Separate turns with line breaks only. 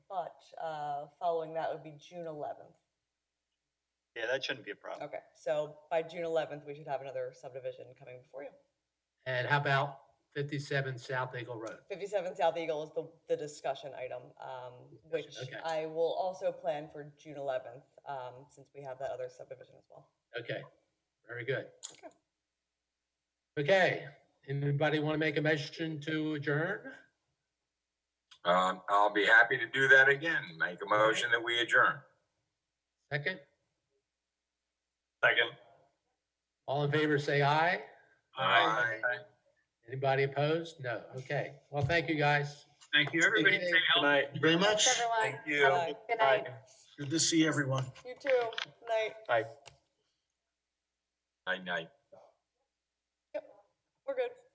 uh, following that would be June eleventh.
Yeah, that shouldn't be a problem.
Okay, so by June eleventh, we should have another subdivision coming before you.
And how about fifty-seven South Eagle Road?
Fifty-seven South Eagle is the, the discussion item, um, which
Discussion, okay.
I will also plan for June eleventh, um, since we have that other subdivision as well.
Okay, very good. Okay, anybody want to make a motion to adjourn?
Um, I'll be happy to do that again. Make a motion that we adjourn.
Second,
Second.
all in favor, say aye.
Aye.
Anybody opposed? No. Okay. Well, thank you, guys.
Thank you, everybody. Stay
Good
healthy.
night. Very much.
Thanks, everyone.
you.
Bye-bye.
Good night.
Good to see everyone.
You too, night,
Night, night.
we're good.